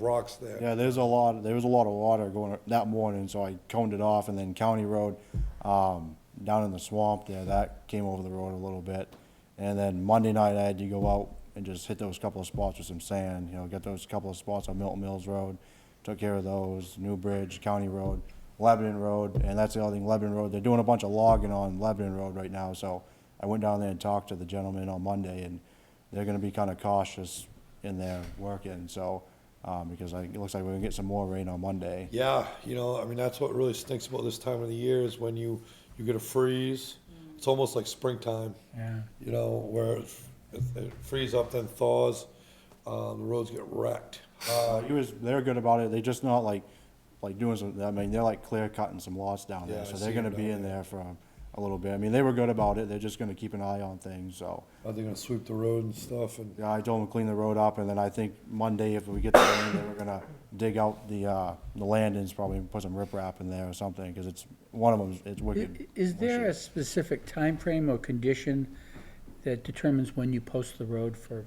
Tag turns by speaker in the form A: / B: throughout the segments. A: rocks there.
B: Yeah, there's a lot, there was a lot of water going that morning, so I coned it off, and then County Road, um, down in the swamp there, that came over the road a little bit. And then Monday night, I had to go out and just hit those couple of spots with some sand, you know, get those couple of spots on Milton Mills Road, took care of those, New Bridge, County Road, Lebanon Road, and that's the other thing, Lebanon Road, they're doing a bunch of logging on Lebanon Road right now, so I went down there and talked to the gentleman on Monday, and they're gonna be kinda cautious in their working, so, um, because I, it looks like we're gonna get some more rain on Monday.
A: Yeah, you know, I mean, that's what really stinks about this time of the year is when you, you get a freeze. It's almost like springtime,
C: Yeah.
A: you know, where it f- it frees up, then thaws, uh, the roads get wrecked.
B: Uh, he was, they're good about it, they just not like, like doing some, I mean, they're like clear cutting some lots down
A: Yeah, I
B: there, so
A: see
B: they're
A: 'em
B: gonna be
A: down
B: in there for a- a little bit. I mean, they were good about it, they're just gonna keep an eye on things, so.
A: Are they gonna sweep the road and stuff and,
B: Yeah, I told them to clean the road up, and then I think Monday, if we get the rain, they were gonna dig out the, uh, the landings, probably put some riprap in there or something, cause it's, one of them, it's wicked.
C: Is there a
B: bushy.
C: specific time frame or condition that determines when you post the road for,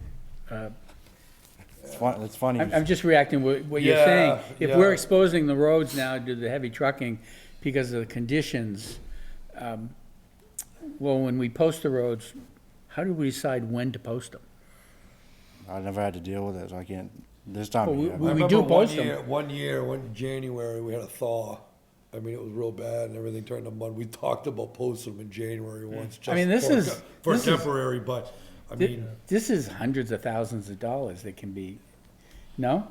C: uh,
B: It's fun, it's funny.
C: I'm, I'm just reacting what, what you're
A: Yeah,
C: saying. If
A: yeah.
C: we're exposing the roads now to the heavy trucking because of the conditions, um, well, when we post the roads, how do we decide when to post them?
B: I never had to deal with it, so I can't, this time of
C: Well, we-
B: year.
C: we-
B: I-
A: I
C: do
A: remember one
C: post 'em.
A: year- One year, one January, we had a thaw. I mean, it was real bad and everything turned to mud. We talked about posting them in January once.
C: I mean,
A: just
C: this
A: for a
C: is-
A: te- For
C: this is-
A: temporary, but, I
C: Thi-
A: mean, uh,
C: This is hundreds of thousands of dollars that can be, no?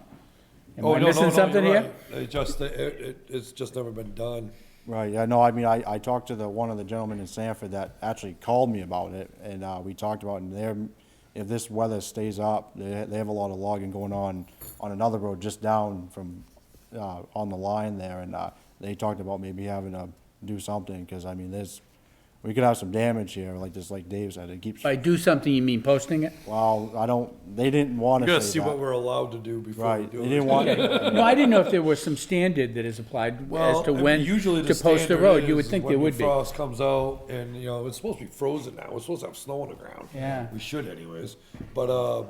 C: Am
A: oh,
C: I
A: no, no,
C: missing
A: no,
C: something
A: you're
C: here?
A: right. It just, it, it, it's just never been done.
B: Right, yeah, no, I mean, I, I talked to the, one of the gentlemen in Sanford that actually called me about it, and, uh, we talked about, it, and they're, if this weather stays up, they, they have a lot of logging going on, on another road just down from, uh, on the line there, and, uh, they talked about maybe having to do something, cause I mean, there's, we could have some damage here, like just like Dave said, it keeps,
C: By do something, you mean posting it?
B: well, I don't, they didn't wanna
A: We
B: say that.
A: gotta see what we're allowed to do before we
B: Right,
A: do
B: they
A: it.
B: didn't want,
C: No, I didn't know if there was some standard that is applied
A: Well,
C: as to
A: I mean,
C: when
A: usually
C: to post the
A: standard
C: road. You
A: is
C: would think
A: when
C: there
A: the
C: would be.
A: Frost comes out and, you know, it's supposed to be frozen now. We're supposed to have snow on the ground.
C: Yeah.
A: We should anyways, but, uh,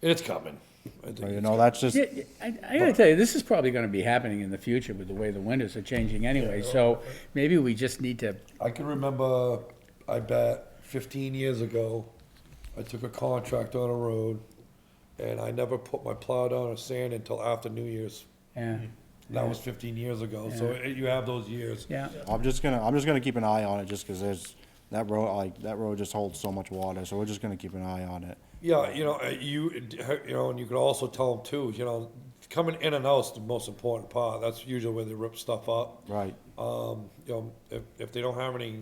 A: it's coming. I think
B: you
A: it's
B: know, that's just,
C: Yeah, yeah, I, I gotta tell you, this is probably gonna be happening in the future with the way the winters are changing anyway, so maybe we just need to,
A: I can remember, I bet, 15 years ago, I took a contract on a road, and I never put my plow down or sand until after New Year's.
C: yeah,
A: Hmm. That was 15 years ago, so it- you have those years.
C: yeah.
B: I'm just gonna, I'm just gonna keep an eye on it, just 'cause there's, that road, like, that road just holds so much water, so we're just gonna keep an eye on it.
A: Yeah, you know, uh, you, you know, and you could also tell them too, you know, coming in and out's the most important part. That's usually where they rip stuff up.
B: Right,
A: Um, you know, if, if they don't have any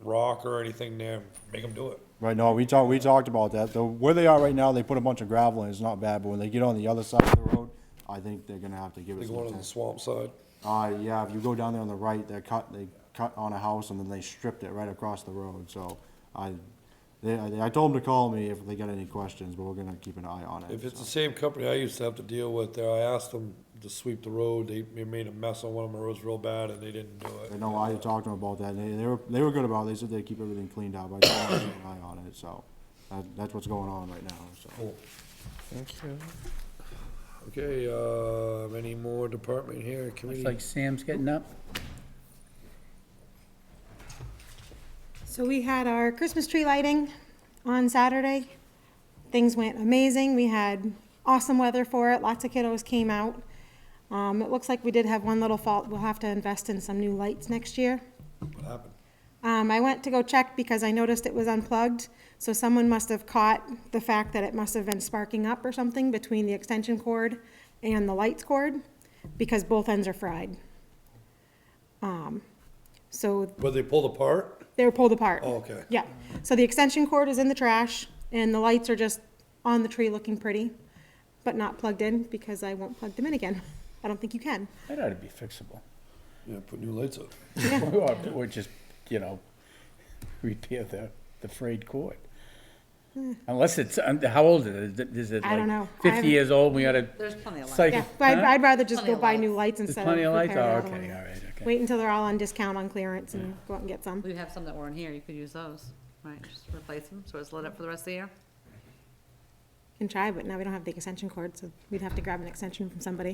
A: rock or anything there, make them do it.
B: right, no, we talked, we talked about that, though, where they are right now, they put a bunch of gravel in, it's not bad, but when they get on the other side of the road, I think they're gonna have to give
A: They
B: it
A: go
B: some
A: into the
B: attention.
A: swamp side.
B: Uh, yeah, if you go down there on the right, they're cut, they cut on a house, and then they stripped it right across the road, so I, they, I I told them to call me if they got any questions, but we're gonna keep an eye on it.
A: If it's
B: so.
A: the same company I used to have to deal with there, I asked them to sweep the road, they, they made a mess on one of my roads real bad and they didn't do
B: I
A: it.
B: know, I talked to them about that, and they, they were, they were good about it, they said they keep everything cleaned up, I told them to keep an eye on it, so, that, that's what's going on right now, so.
A: Cool. Thank you. Okay, um, any more department here,
C: It's
A: committee?
C: like Sam's getting up.
D: So we had our Christmas tree lighting on Saturday. Things went amazing. We had awesome weather for it. Lots of kiddos came out. Um, it looks like we did have one little fault. We'll have to invest in some new lights next year.
A: What happened?
D: Um, I went to go check because I noticed it was unplugged. So someone must have caught the fact that it must have been sparking up or something between the extension cord and the lights cord because both ends are fried. Um, so
A: Were they pulled apart?
D: they were pulled apart.
A: Oh, okay.
D: Yeah. So the extension cord is in the trash and the lights are just on the tree looking pretty, but not plugged in because I won't plug them in again. I don't think you can.
C: That ought to be fixable.
A: Yeah, put new lights up.
C: Or, or just, you know, repair the, the frayed cord. Unless it's, um, how old is it? Is it
D: I don't know.
C: like
D: I
C: fifty
D: haven't-
C: years old, we ought to
E: There's plenty of light.
C: cycle?
D: Yeah, but I'd,
C: Huh?
D: I'd rather just go
E: Plenty of
D: buy new lights instead
C: There's
D: of
C: plenty
D: repair
C: of lights,
D: the
C: oh,
D: other
C: okay, all
D: one.
C: right, okay.
D: Wait until they're all on discount on clearance and go out and get some.
E: We have some that weren't here, you could use those, right, just replace them, so it's lit up for the rest of the year.
D: Can try, but now we don't have the extension cord, so we'd have to grab an extension from somebody.